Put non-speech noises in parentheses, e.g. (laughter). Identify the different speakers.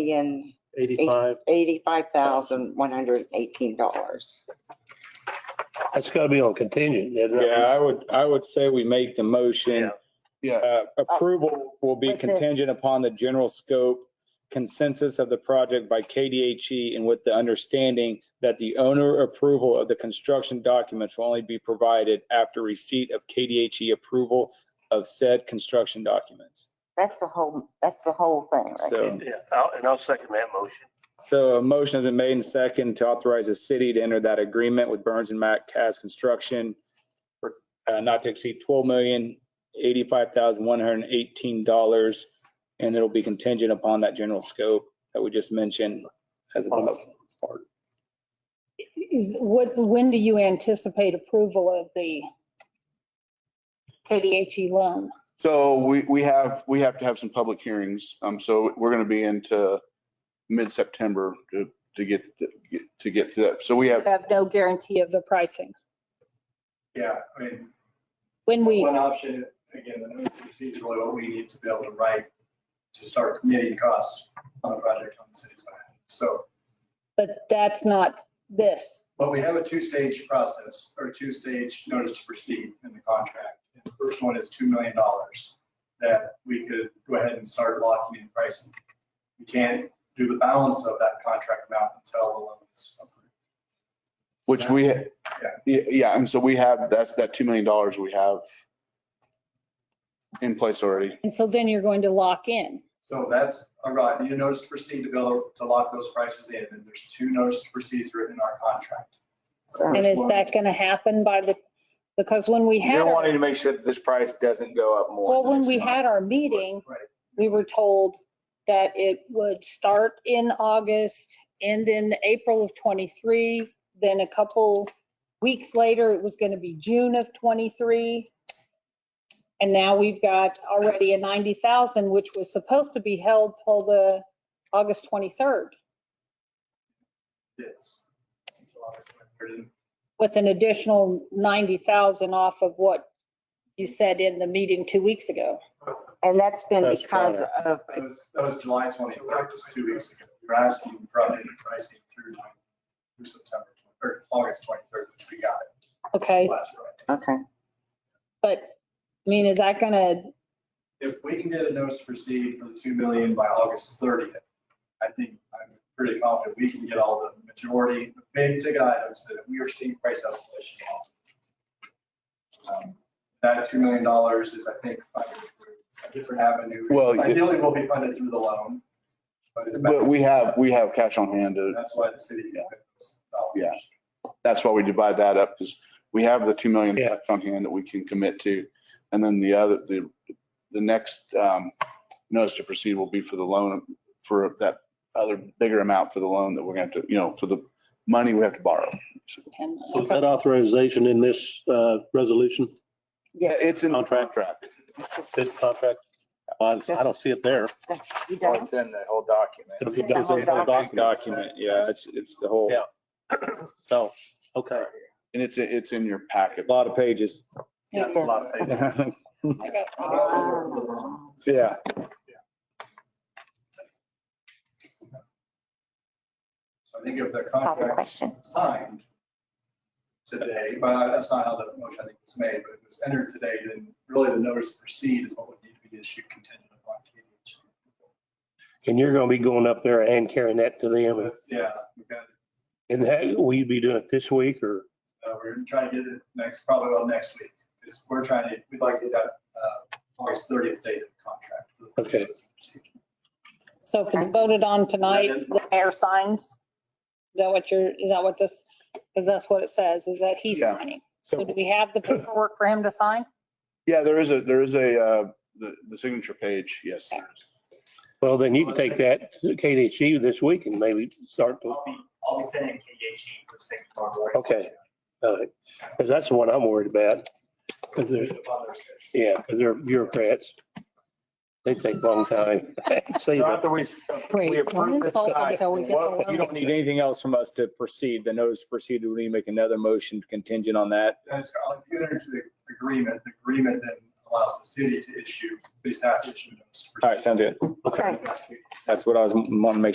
Speaker 1: million,
Speaker 2: Eighty-five.
Speaker 1: eighty-five thousand, one hundred and eighteen dollars.
Speaker 2: That's gotta be on contingent. isn't it?
Speaker 3: Yeah, I would, I would say we make the motion.
Speaker 4: Yeah.
Speaker 3: Uh, Approval will be
Speaker 1: With this.
Speaker 3: contingent upon the general scope consensus of the project by KDHE E and with the understanding that the owner approval of the construction documents will only be provided after receipt of KDHE E approval of said construction documents.
Speaker 1: That's the whole, that's the whole thing, right?
Speaker 3: So,
Speaker 5: Yeah, I'll- and I'll second that motion.
Speaker 3: so a motion has been made and second to authorize the city to enter that agreement with Burns and Mac Cast Construction for uh, not to exceed twelve million, eighty-five thousand, one hundred and eighteen dollars. And it'll be contingent upon that general scope that we just mentioned as a bonus part.
Speaker 6: Is, what, when do you anticipate approval of the KDHE E loan?
Speaker 4: So we, we have, we have to have some public hearings. Um, so we're going to be into mid-September to, to get, to get to that. So we
Speaker 6: You
Speaker 4: have,
Speaker 6: Have no guarantee of the pricing.
Speaker 7: Yeah, I mean,
Speaker 6: When we,
Speaker 7: one option, again, the notice is really what we need to be able to write to start committing costs on a project on the city's behalf. So,
Speaker 6: but that's not this.
Speaker 7: but we have a two-stage process or two-stage notice to proceed in the contract. And the first one is $2 million that we could go ahead and start locking in pricing. We can't do the balance of that contract amount until the loan is approved.
Speaker 4: which we, yeah, yeah. And so we have, that's that $2 million we have in place already.
Speaker 6: And so then you're going to lock in.
Speaker 7: So that's, all right, need a notice to proceed to bill, to lock those prices in, and there's two notice to proceeds written in our contract. The
Speaker 1: So-
Speaker 6: And
Speaker 7: first
Speaker 6: is
Speaker 7: one-
Speaker 6: that going to happen by the, because when we had,
Speaker 3: You're
Speaker 6: our-
Speaker 3: wanting to make sure that this price doesn't go up more.
Speaker 6: well, when
Speaker 3: than
Speaker 6: we
Speaker 3: it's not.
Speaker 6: had our meeting,
Speaker 7: Right.
Speaker 6: we were told that it would start in August, end in April of 23, then a couple weeks later, it was going to be June of 23. And now we've got already a 90,000, which was supposed to be held till the August 23rd
Speaker 7: Yes. Until August 23rd.
Speaker 6: with an additional 90,000 off of what you said in the meeting two weeks ago.
Speaker 1: And that's been
Speaker 3: That's
Speaker 1: because of,
Speaker 7: That was, that was July 23rd, just two weeks ago. We were asking for updated pricing through, through September, or August 23rd, which we got
Speaker 6: Okay,
Speaker 7: it last Friday.
Speaker 1: okay,
Speaker 6: but I mean, is that going to
Speaker 7: if we can get a notice to proceed for the 2 million by August 30th, I think I'm pretty confident we can get all the majority, the big ticket items that we are seeing price escalation on. Um, That $2 million is, I think, funded through a different avenue.
Speaker 4: Well,
Speaker 7: Ideally, will be funded through the loan, but it's,
Speaker 4: But we have, we have cash on hand. to-
Speaker 7: that's why the city. can put those dollars.
Speaker 4: Yeah. That's why we divide that up because we have the 2 million
Speaker 2: Yeah.
Speaker 4: cash on hand that we can commit to. And then the other, the, the next um, notice to proceed will be for the loan, for that other bigger amount for the loan that we're going to, you know, for the money we have to borrow.
Speaker 6: And-
Speaker 2: So is that authorization in this uh, resolution,
Speaker 4: Yeah,
Speaker 1: yes.
Speaker 4: It's in
Speaker 2: Contract.
Speaker 4: contract.
Speaker 2: this contract? I I don't see it there.
Speaker 1: You
Speaker 3: Well,
Speaker 1: don't,
Speaker 3: It's in the whole document.
Speaker 2: It's
Speaker 1: It's in the whole
Speaker 2: document.
Speaker 3: Document, yeah, it's, it's the whole,
Speaker 2: Yeah. So, okay.
Speaker 4: And it's, it's in your packet.
Speaker 3: a lot of pages. (laughs)
Speaker 7: Yeah, a lot of things.
Speaker 6: I got-
Speaker 1: Ah.
Speaker 3: Yeah.
Speaker 7: So I think if the
Speaker 1: Other
Speaker 7: contract
Speaker 1: question.
Speaker 7: signed today, but that's not how the motion I think was made, but if it was entered today, then really the notice to proceed is what would need to be issued contingent upon KDH.
Speaker 2: And you're gonna be going up there and carrying that to them.
Speaker 7: That's- Yeah, we got, it.
Speaker 2: And that, will you be doing it this week or?
Speaker 7: Uh, we're trying to get it next, probably well next week, because we're trying to, we'd like to get that uh, August 30th date of the contract.
Speaker 2: Okay.
Speaker 6: So if it's voted on tonight, the mayor signs? Is that what you're, is that what this, because that's what it says, is that he's
Speaker 4: Yeah.
Speaker 6: signing. So do
Speaker 2: So
Speaker 6: we have the paperwork for him to sign?
Speaker 4: Yeah, there is a, there is a, uh, the, the signature page, yes. there is.
Speaker 2: Well, then you can take that to KDHE E this week and maybe start to,
Speaker 8: I'll be, I'll be sending KDHE for six tomorrow morning.
Speaker 2: okay. Because that's the one I'm worried about. 'Cause they're- yeah, because they're bureaucrats. They take long time. (laughs) See,
Speaker 3: So After we, we approve this tonight,
Speaker 6: until we get the
Speaker 3: well,
Speaker 6: loan.
Speaker 3: you don't need anything else from us to proceed. The notice to proceed, we need to make another motion contingent on that.
Speaker 7: And it's, I'll get into the agreement, the agreement then allows the city to issue, city staff to issue notice. to
Speaker 3: All right, sounds good.
Speaker 1: Okay.
Speaker 7: proceed.
Speaker 3: That's what I was, wanting to make sure